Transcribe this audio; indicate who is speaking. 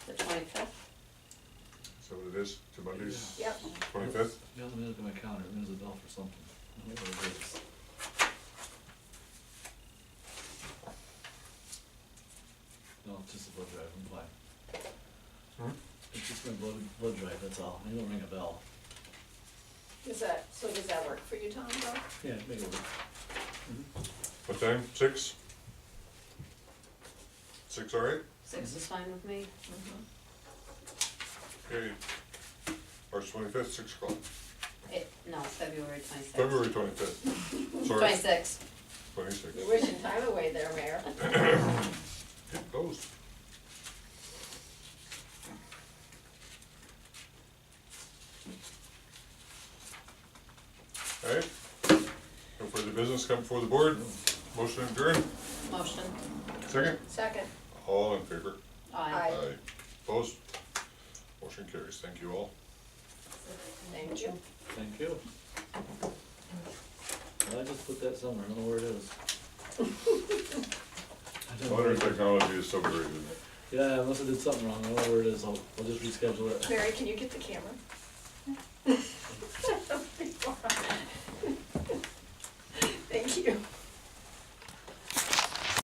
Speaker 1: the twenty-fifth.
Speaker 2: So it is, to Monday's
Speaker 1: Yep.
Speaker 2: twenty-fifth?
Speaker 3: You have to look at my calendar, it rings a bell for something. I don't know what it is. No, it's just a blood drive, I'm fine. It's just my blood, blood drive, that's all, it'll ring a bell.
Speaker 1: Does that, so does that work for you, Tom, though?
Speaker 3: Yeah, make it work.
Speaker 2: What time? Six? Six, all right?
Speaker 4: Six is fine with me.
Speaker 2: Okay. March twenty-fifth, six o'clock.
Speaker 4: It, no, February twenty-sixth.
Speaker 2: February twenty-fifth. Sorry,
Speaker 4: Twenty-sixth.
Speaker 2: twenty-six.
Speaker 1: You're wishing time away there, Mayor.
Speaker 2: Closed. All right. No further business come before the board. Motion adjourned.
Speaker 4: Motion.
Speaker 2: Second?
Speaker 1: Second.
Speaker 2: All in favor?
Speaker 1: Aye.
Speaker 2: Opposed? Motion carries. Thank you all.
Speaker 1: Thank you.
Speaker 3: Thank you. Well, I just put that somewhere, I don't know where it is. I don't know where
Speaker 2: Modern
Speaker 3: it is.
Speaker 2: technology is so great, isn't it?
Speaker 3: Yeah, I must have did something wrong, I don't know where it is, I'll, I'll just reschedule it.
Speaker 1: Mary, can you get the camera?